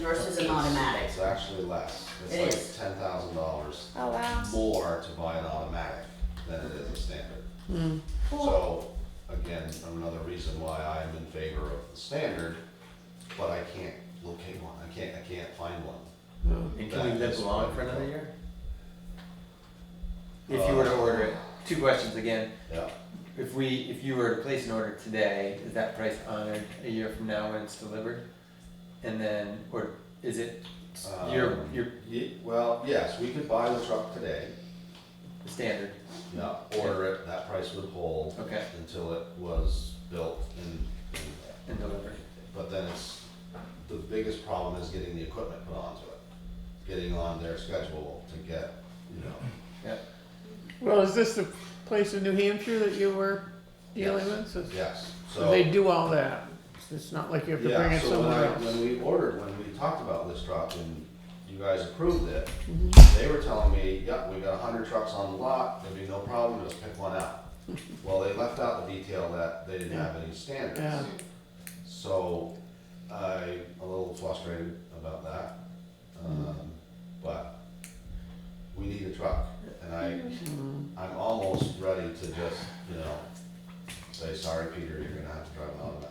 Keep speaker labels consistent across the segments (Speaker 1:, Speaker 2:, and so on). Speaker 1: versus an automatic.
Speaker 2: It's actually less.
Speaker 1: It
Speaker 2: It's
Speaker 1: is. Um,
Speaker 2: like ten thousand dollars
Speaker 3: Oh, wow.
Speaker 2: more to buy an automatic than it is a standard.
Speaker 1: Well,
Speaker 2: So, again, another reason why I'm in favor of the standard, but I can't locate one, I can't, I can't find one.
Speaker 4: And can we
Speaker 2: That
Speaker 4: live
Speaker 2: is
Speaker 4: long for
Speaker 2: right.
Speaker 4: another year? If you were to order it, two questions again.
Speaker 2: Yeah,
Speaker 4: If we, if you were to place an order today, is that price honored a year from now when it's delivered? And then, or is it your,
Speaker 2: Um,
Speaker 4: your
Speaker 2: Ye- well, yes, we could buy the truck today,
Speaker 4: standard?
Speaker 2: yeah, order it, that price would hold
Speaker 4: Okay,
Speaker 2: until it was built and, and
Speaker 4: and delivered.
Speaker 2: But then it's, the biggest problem is getting the equipment put onto it, getting on their schedule to get, you know.
Speaker 5: Well, is this the place in New Hampshire that you were dealing
Speaker 2: Yes.
Speaker 5: with? So-
Speaker 2: Yes,
Speaker 5: So
Speaker 2: so.
Speaker 5: they do all that. It's not like you have to bring
Speaker 2: Yeah,
Speaker 5: it
Speaker 2: so when I,
Speaker 5: somewhere else.
Speaker 2: when we ordered, when we talked about this truck and you guys approved it,
Speaker 5: Mm-hmm.
Speaker 2: they were telling me, yep, we got a hundred trucks on the lot, there'd be no problem, just pick one out. Well, they left out the detail that they didn't have any
Speaker 5: Yeah.
Speaker 2: standards. So I'm a little frustrated about that. Um, but we need a truck and I, I'm almost ready to just, you know, say, sorry, Peter, you're gonna have to drive an automatic.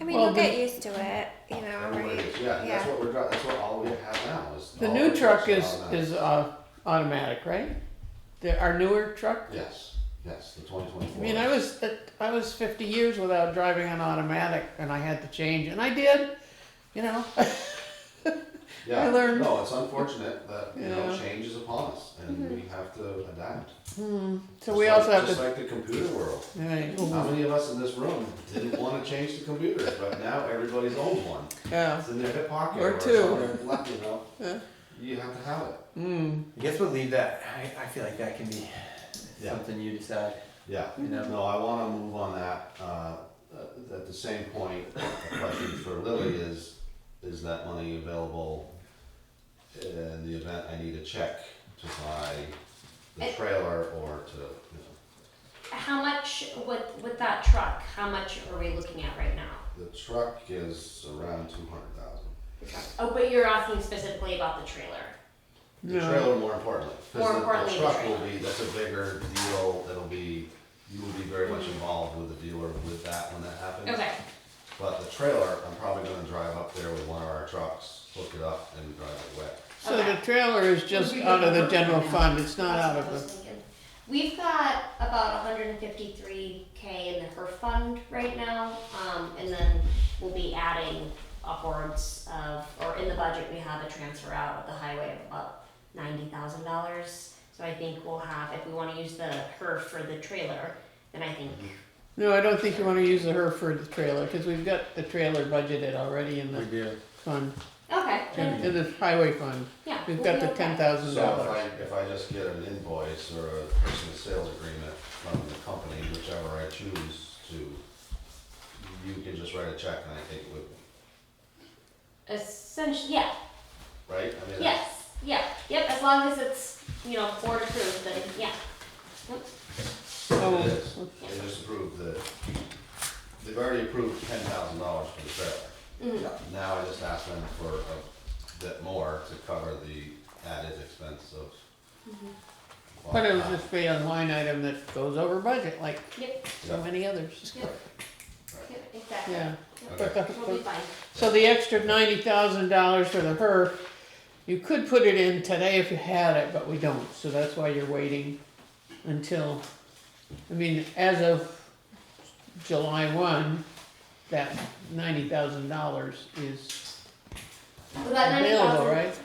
Speaker 3: I mean,
Speaker 5: Well,
Speaker 3: you'll
Speaker 5: the-
Speaker 3: get used to it, you know.
Speaker 2: Everybody
Speaker 3: right?
Speaker 2: is, yeah, that's
Speaker 3: Yeah.
Speaker 2: what we're, dri- that's what all we have now is.
Speaker 5: The
Speaker 2: all
Speaker 5: new
Speaker 2: the
Speaker 5: truck
Speaker 2: trucks
Speaker 5: is,
Speaker 2: are automatic.
Speaker 5: is uh, automatic, right? The, our newer truck?
Speaker 2: Yes, yes, the twenty
Speaker 5: I
Speaker 2: twenty-four.
Speaker 5: mean, I was, I was fifty years without driving an automatic and I had to change and I did, you know? I learned.
Speaker 2: No, it's unfortunate that, you know,
Speaker 5: Yeah.
Speaker 2: change is upon us and
Speaker 3: Mm-hmm.
Speaker 2: we have to adapt.
Speaker 5: So
Speaker 2: Just
Speaker 5: we
Speaker 2: like-
Speaker 5: also have
Speaker 2: Just
Speaker 5: to,
Speaker 2: like the computer world.
Speaker 5: Right.
Speaker 2: How many of us in this room didn't wanna change the computer, but now everybody's owned one.
Speaker 5: yeah,
Speaker 2: It's in their hip pocket.
Speaker 5: Or
Speaker 2: it's
Speaker 5: two.
Speaker 2: somewhere, like, You
Speaker 5: Yeah.
Speaker 2: know, you have to have it.
Speaker 5: mm,
Speaker 4: I guess we'll leave that, I, I feel like that can be
Speaker 2: Yeah.
Speaker 4: something you decide,
Speaker 2: Yeah,
Speaker 4: you know?
Speaker 2: no, I wanna move on that, uh, uh, at the same point, a question for Lily is, is that money available in the event I need a check to buy the
Speaker 1: It-
Speaker 2: trailer or to, you
Speaker 1: How much with with that truck? How much are we looking at right now?
Speaker 2: know, the truck is around two hundred thousand.
Speaker 1: The truck. Oh, but you're asking specifically about the trailer.
Speaker 2: The
Speaker 5: No.
Speaker 2: trailer more importantly,
Speaker 1: More
Speaker 2: cause the-
Speaker 1: importantly,
Speaker 2: the
Speaker 1: the
Speaker 2: truck will
Speaker 1: trailer.
Speaker 2: be, that's a bigger deal, it'll be, you will be very much involved with the dealer with that when that happens.
Speaker 1: Okay.
Speaker 2: But the trailer, I'm probably gonna drive up there with one of our trucks, hook it up and drive it away.
Speaker 5: so the trailer is just out of the general fund, it's not out
Speaker 1: That's what I
Speaker 5: of
Speaker 1: was thinking. We've got about 153k in the HERF fund right now, um, and then we'll be adding upwards of, or in the budget, we have a transfer out of the highway of about $90,000. So I think we'll have, if we want to use the HERF for the trailer, then I think
Speaker 5: the, no, I don't think you wanna use the Hereford trailer, cause we've got the trailer budgeted already in
Speaker 4: We
Speaker 5: the
Speaker 4: do.
Speaker 5: fund,
Speaker 1: okay, then,
Speaker 5: in the highway fund.
Speaker 1: yeah,
Speaker 5: Mm-hmm. We've
Speaker 1: we'll
Speaker 5: got
Speaker 1: be
Speaker 5: the
Speaker 1: okay.
Speaker 5: ten thousand
Speaker 2: So if
Speaker 5: dollars.
Speaker 2: I, if I just get an invoice or a personal sales agreement from the company, whichever I choose to, you can just write a check and I take it with me,
Speaker 1: Essentially, yeah,
Speaker 2: right? I mean,
Speaker 1: yes, yeah, yep. As long as it's you know board approved, then yeah.
Speaker 2: It
Speaker 5: Oh,
Speaker 2: is, they just approved the, they've already approved ten thousand dollars for the trailer.
Speaker 1: Mm.
Speaker 2: Now I just asked them for a bit more to cover the added expense of.
Speaker 1: Mm-hmm.
Speaker 5: But it would just be a line item that goes over budget, like
Speaker 1: Yep.
Speaker 5: so many others.
Speaker 1: Yep. Yep. Exactly.
Speaker 5: Yeah.
Speaker 2: Okay.
Speaker 1: We'll be fine.
Speaker 5: So the extra ninety thousand dollars for the HERF, you could put it in today if you had it, but we don't, so that's why you're waiting until, I mean, as of July one, that ninety thousand dollars is
Speaker 1: Well, that ninety
Speaker 5: available,
Speaker 1: thousand.
Speaker 5: right?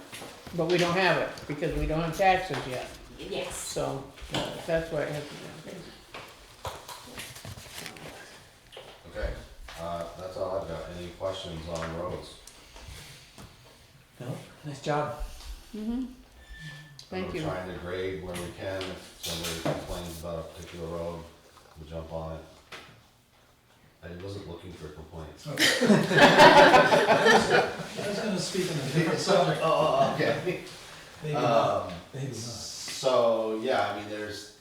Speaker 5: But we don't have it, because we don't have taxes yet,
Speaker 1: Yes.
Speaker 5: so uh, that's why it has to be.
Speaker 2: Okay, uh, that's all I've got, any questions on roads?
Speaker 4: No, nice job.
Speaker 5: Thank you.
Speaker 2: We're trying to grade where we can, if somebody complains about a particular road, we jump on it. I wasn't looking for complaints.
Speaker 6: I was gonna speak on a different subject,
Speaker 2: Oh, okay.
Speaker 6: maybe not,
Speaker 2: Um,
Speaker 6: maybe not.
Speaker 2: So, yeah, I mean, there's,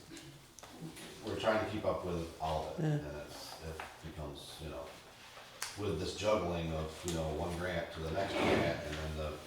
Speaker 2: we're trying to keep up with all of it,
Speaker 5: Yeah.
Speaker 2: and it's, it becomes, you know, with this juggling of, you know, one grant to the next grant, and then the